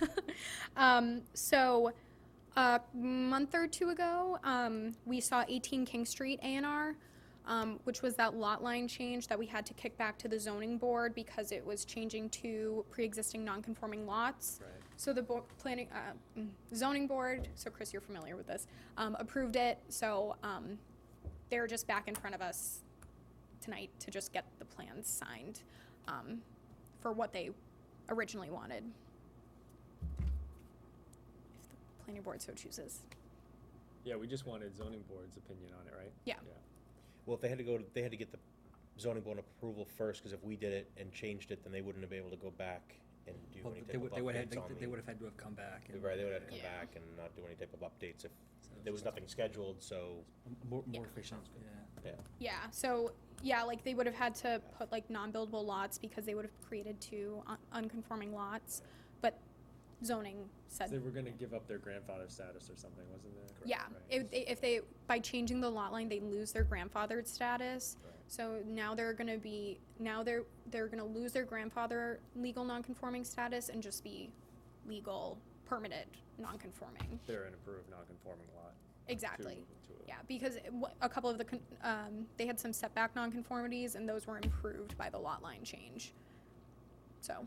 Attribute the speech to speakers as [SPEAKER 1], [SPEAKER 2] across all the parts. [SPEAKER 1] Um, so a month or two ago, um, we saw 18 King Street A&R, um, which was that lot line change that we had to kick back to the zoning board because it was changing to pre-existing non-conforming lots.
[SPEAKER 2] Right.
[SPEAKER 1] So the bo- planning, uh, mm, zoning board, so Chris, you're familiar with this, um, approved it, so, um, they're just back in front of us tonight to just get the plans signed, um, for what they originally wanted. If the planning board so chooses.
[SPEAKER 2] Yeah, we just wanted zoning board's opinion on it, right?
[SPEAKER 1] Yeah.
[SPEAKER 3] Well, if they had to go to, they had to get the zoning board approval first, because if we did it and changed it, then they wouldn't have been able to go back and do
[SPEAKER 4] Well,
[SPEAKER 3] any type
[SPEAKER 4] They
[SPEAKER 3] of
[SPEAKER 4] would, they would have,
[SPEAKER 3] updates on the.
[SPEAKER 4] they would have had to have come back. and-
[SPEAKER 3] Right, they would have to come
[SPEAKER 1] Yeah.
[SPEAKER 3] back and not do any type of updates if,
[SPEAKER 4] So
[SPEAKER 3] there was nothing scheduled, so,
[SPEAKER 4] More,
[SPEAKER 1] Yeah.
[SPEAKER 4] more efficient, yeah.
[SPEAKER 3] yeah.
[SPEAKER 1] Yeah, so, yeah, like they would have had to put like non-buildable lots because they would have created two un- unconforming lots, but zoning said
[SPEAKER 2] They were gonna give up their grandfather status or something, wasn't there?
[SPEAKER 1] Yeah,
[SPEAKER 2] Right.
[SPEAKER 1] if they, if they, by changing the lot line, they lose their grandfathered status.
[SPEAKER 2] Right.
[SPEAKER 1] So now they're gonna be, now they're, they're gonna lose their grandfather legal nonconforming status and just be legal permitted nonconforming.
[SPEAKER 2] They're an approved non-conforming lot. to
[SPEAKER 1] Exactly.
[SPEAKER 2] move into a-
[SPEAKER 1] Yeah, because it wa- a couple of the, con- um, they had some setback nonconformities and those were improved by the lot line change. So,
[SPEAKER 3] Do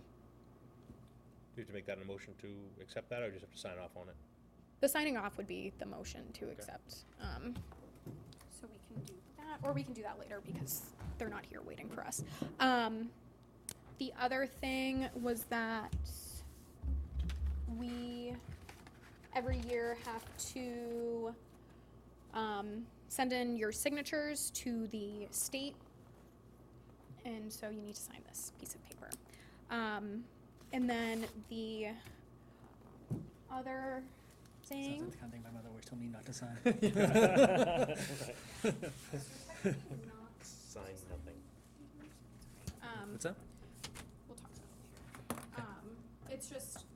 [SPEAKER 3] you have to make that a motion to accept that, or just have to sign off on it?
[SPEAKER 1] the signing off would be the motion to
[SPEAKER 2] Okay.
[SPEAKER 1] accept. Um, so we can do that, or we can do that later because they're not here waiting for us. Um, the other thing was that we every year have to um, send in your signatures to the state. And so you need to sign this piece of paper. Um, and then the other
[SPEAKER 4] Sounds
[SPEAKER 1] thing.
[SPEAKER 4] like the kind of thing my mother always told me not to sign.
[SPEAKER 3] Sign nothing.
[SPEAKER 1] Um,
[SPEAKER 4] What's up?
[SPEAKER 1] we'll talk about it later. Um, it's just,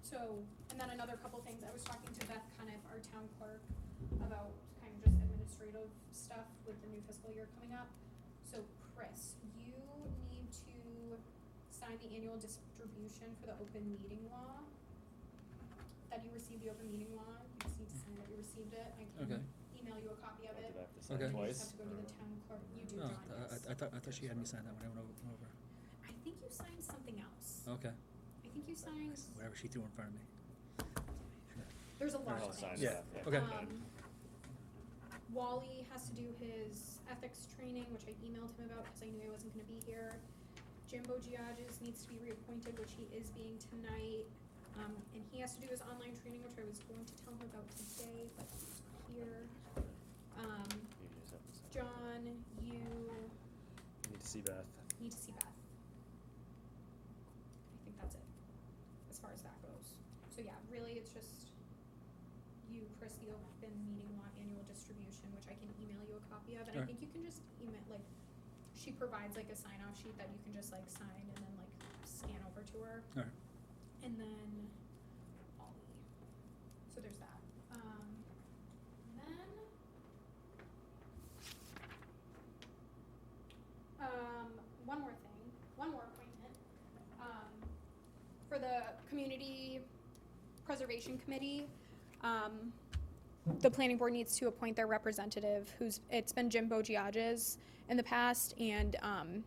[SPEAKER 1] so, and then another couple things, I was talking to Beth Cuniff, our town clerk, about kind of just administrative stuff with the new fiscal year coming up. So Chris, you need to sign the annual distribution for the open meeting law. That you received the open meeting law, you just need to sign that you received it, I
[SPEAKER 4] Okay.
[SPEAKER 1] can email you a copy of
[SPEAKER 2] Oh,
[SPEAKER 1] it.
[SPEAKER 2] did I have to
[SPEAKER 4] Okay.
[SPEAKER 2] sign
[SPEAKER 1] You just have
[SPEAKER 2] twice?
[SPEAKER 1] to go to the town clerk, you do,
[SPEAKER 4] No,
[SPEAKER 1] John,
[SPEAKER 4] Oh, I-
[SPEAKER 1] yes.
[SPEAKER 4] I, I thought, I thought she had me sign that when I went o- over.
[SPEAKER 1] I think you signed something else.
[SPEAKER 4] Okay,
[SPEAKER 1] I think you signed,
[SPEAKER 4] whatever she threw in front of me.
[SPEAKER 1] there's a lot
[SPEAKER 2] I'll
[SPEAKER 1] of
[SPEAKER 2] sign
[SPEAKER 1] things.
[SPEAKER 4] Yeah,
[SPEAKER 2] that, yeah.
[SPEAKER 4] okay.
[SPEAKER 1] Um, Wally has to do his ethics training, which I emailed him about because I knew I wasn't gonna be here. Jimbo Giages needs to be reappointed, which he is being tonight. Um, and he has to do his online training, which I was going to tell him about today, but he's not here. Um,
[SPEAKER 2] You just have to sign.
[SPEAKER 1] John, you
[SPEAKER 2] You Need to see Beth.
[SPEAKER 1] need to see Beth. I think that's it, as far as that goes. So yeah, really, it's just you, Chris, the open meeting law annual distribution, which I can email you a copy of, and I
[SPEAKER 4] Alright.
[SPEAKER 1] think you can just email, like, she provides like a sign-off sheet that you can just like sign and then like scan over to her.
[SPEAKER 4] Alright.
[SPEAKER 1] And then Ollie. So there's that. Um, and then. Um, one more thing, one more appointment. Um, for the community preservation committee, um, the planning board needs to appoint their representative, who's, it's been Jim Bogiages in the past, and, um,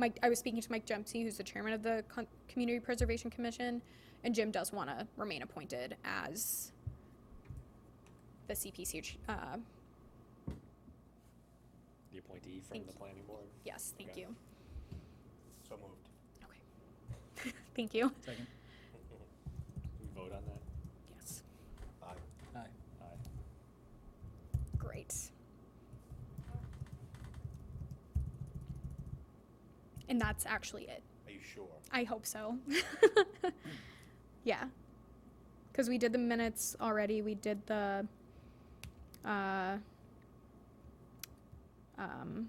[SPEAKER 1] Mike, I was speaking to Mike Dempsey, who's the chairman of the Con- Community Preservation Commission, and Jim does wanna remain appointed as the CPC, ch- uh,
[SPEAKER 2] The appointee from
[SPEAKER 1] Thank
[SPEAKER 2] the
[SPEAKER 1] you.
[SPEAKER 2] planning board.
[SPEAKER 1] yes, thank
[SPEAKER 2] Okay.
[SPEAKER 1] you.
[SPEAKER 3] So moved.
[SPEAKER 1] Okay. Thank you,
[SPEAKER 4] Second,
[SPEAKER 2] We vote on that?
[SPEAKER 1] yes,
[SPEAKER 3] Aye.
[SPEAKER 4] aye.
[SPEAKER 2] Aye.
[SPEAKER 1] great. And that's actually it.
[SPEAKER 3] Are you sure?
[SPEAKER 1] I hope so. yeah. Because we did the minutes already. We did the. Uh, um,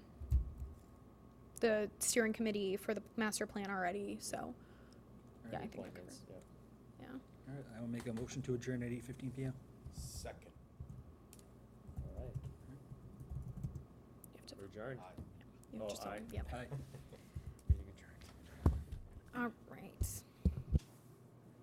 [SPEAKER 1] the steering committee for the master plan already, so yeah, I
[SPEAKER 4] Alright,
[SPEAKER 1] think I covered.
[SPEAKER 2] Appointments, yeah.
[SPEAKER 1] Yeah,
[SPEAKER 4] Alright, I will make a motion to adjourn at eight fifteen PM.
[SPEAKER 3] Second.
[SPEAKER 2] All right,
[SPEAKER 1] you have to.
[SPEAKER 2] we're adjourned.
[SPEAKER 1] You
[SPEAKER 2] Oh,
[SPEAKER 1] have just have
[SPEAKER 2] aye.
[SPEAKER 1] to- yep.
[SPEAKER 4] Aye.
[SPEAKER 2] Meeting adjourned.
[SPEAKER 1] All